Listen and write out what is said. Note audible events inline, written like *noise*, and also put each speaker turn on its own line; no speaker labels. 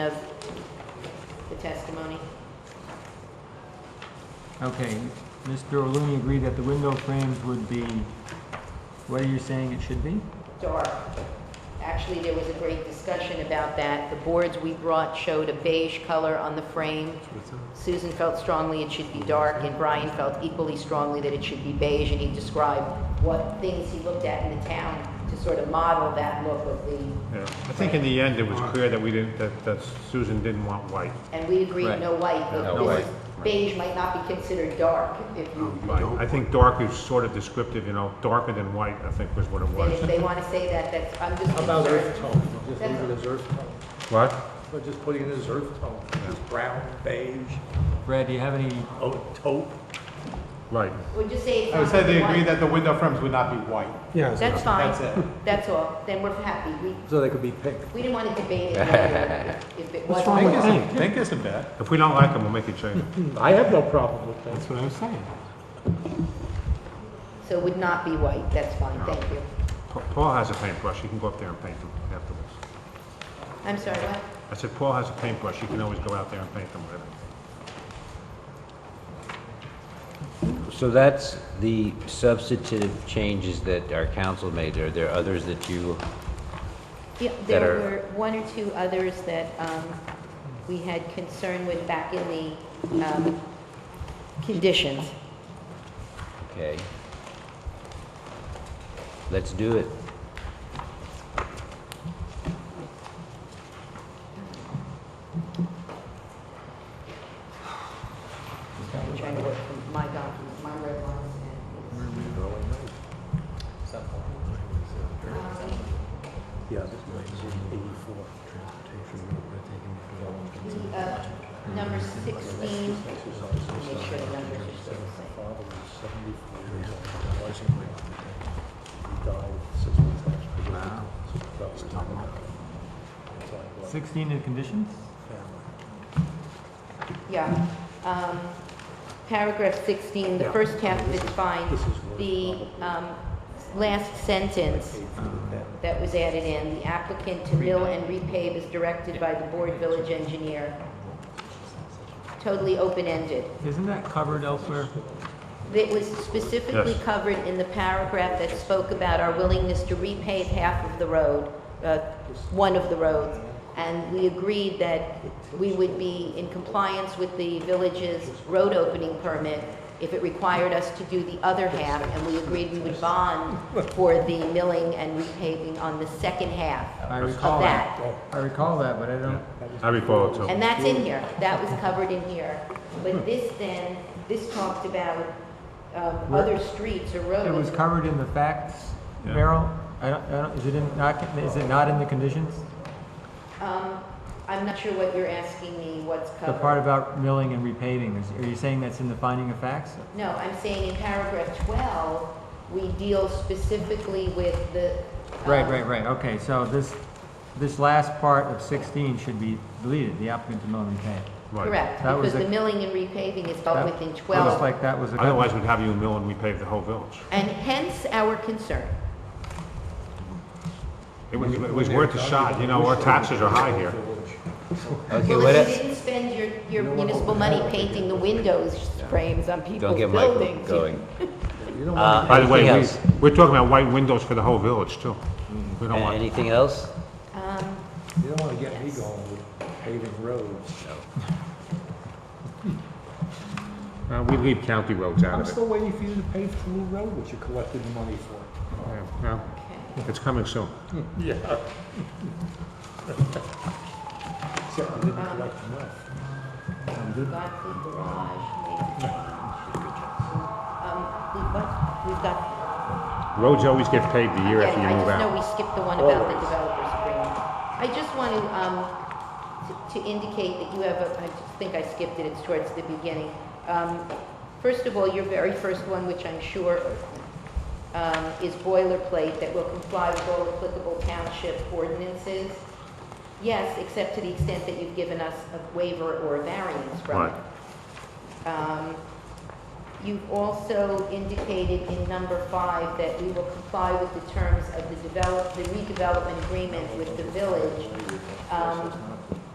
of the testimony.
Okay, Mr. O'Looney agreed that the window frames would be, what are you saying it should be?
dark. Actually, there was a great discussion about that. The boards we brought showed a beige color on the frame. Susan felt strongly it should be dark, and Brian felt equally strongly that it should be beige, and he described what things he looked at in the town to sort of model that look of the,
Yeah, I think in the end, it was clear that we didn't, that, that Susan didn't want white.
and we agreed, no white. but
No
this
white.
is- Beige might not be considered dark if you,
I think dark is sort of descriptive, you know, darker than white, I think was what it
and if
was.
they want to say that, that's, I'm just
How about
concerned.
earth tone? Just leave it as earth tone.
What?
Or just putting it as earth tone, just brown, beige,
Brad, do you have any,
oak, taupe.
Right.
Or just say it's
I would
not
say they
white.
agree that the window frames would not be white.
That's fine.
That's it.
That's all. Then we're happy. We,
So they could be pink.
We didn't want to
*laughs*
debate it whether if- if it was.
Pink isn't, pink isn't bad.
If we don't like them, we'll make a change.
I have no problem with that.
what I was saying.
So it would not be white, that's fine, thank you.
Pa- Paul has a paintbrush, he can go up there and paint them afterwards.
I'm sorry, what?
I said, Paul has a paintbrush, he can always go out there and paint them with it.
So that's the substantive changes that our council made. Are there others that you,
Yeah,
That
there
are-
were one or two others that um, we had concern with back in the um, conditions.
okay? Let's do it.
I'm trying to work from my documents, my red lines. and-
Yeah, this is eighty-four.
The, uh, Number 16, make sure the numbers are still the same.
father was seventy-four years old, I was in my He died six months after. Wow. Six
16 in conditions?
family.
Yeah. Um, Paragraph 16, the
Yeah.
first half of it's fine.
This is where
The
it's
um,
probably-
last sentence that was added in, the applicant to mill and repave is directed by the board village engineer. Totally open-ended.
Isn't that covered elsewhere?
It was specifically
Yes.
covered in the paragraph that spoke about our willingness to repave half of the road, uh, one of the roads. And we agreed that we would be in compliance with the village's road opening permit if it required us to do the other half. And we agreed we would bond for the milling and repaving on the second half
I
of
recall that.
that.
I recall that, but I don't,
I recall it too.
And that's in here, that was covered in here. But this then, this talked about um,
Where-
other streets or
it was
roads.
covered in the facts,
Yeah.
Merrill? I don't, I don't, is it in, not, is it not in the conditions?
Um, I'm not sure what you're asking me, what's
The part
covered.
about milling and repaving, is- are you saying that's in the finding of facts?
No, I'm saying in paragraph 12, we deal specifically with the. um,
Right, right, right, okay, so this, this last part of 16 should be deleted, the applicant to mill and repave.
Right.
Correct,
That was
because the
a-
milling and repaving is dealt
That-
with in
Looks
12.
like that was a.
Otherwise, we'd have you mill and repave the whole village.
And hence our concern.
It was, it was worth a shot, you know, our taxes are high here.
Okay,
Well,
what e-
if you
else?
didn't spend your, your municipal money painting the windows frames on people's
Don't get Michael
buildings.
going. Uh,
By the way,
anything
we,
else?
we're talking about white windows for the whole village too. We don't want,
Anything else?
Um,
You don't want to get me going with paving roads.
uh, we leave county roads out
I'm
of it.
still waiting for you to pave the new road, which you collected the money for.
Yeah, well,
okay.
It's coming soon.
Yeah. Except you didn't collect enough.
got the garage, maybe. Um, we, what, we've got
Roads always get paved the year
Yeah,
after you move
I just know
out.
we skipped the one about the developer's agreement. I just want to, um, to- to indicate that you have a, I just think I skipped it, it's towards the beginning. Um, First of all, your very first one, which I'm sure, um, is boilerplate, that will comply with all applicable township ordinances. Yes, except to the extent that you've given us a waiver or a variance from
Right.
it. Um, You've also indicated in number five that we will comply with the terms of the develop, the redevelopment agreement with the village um,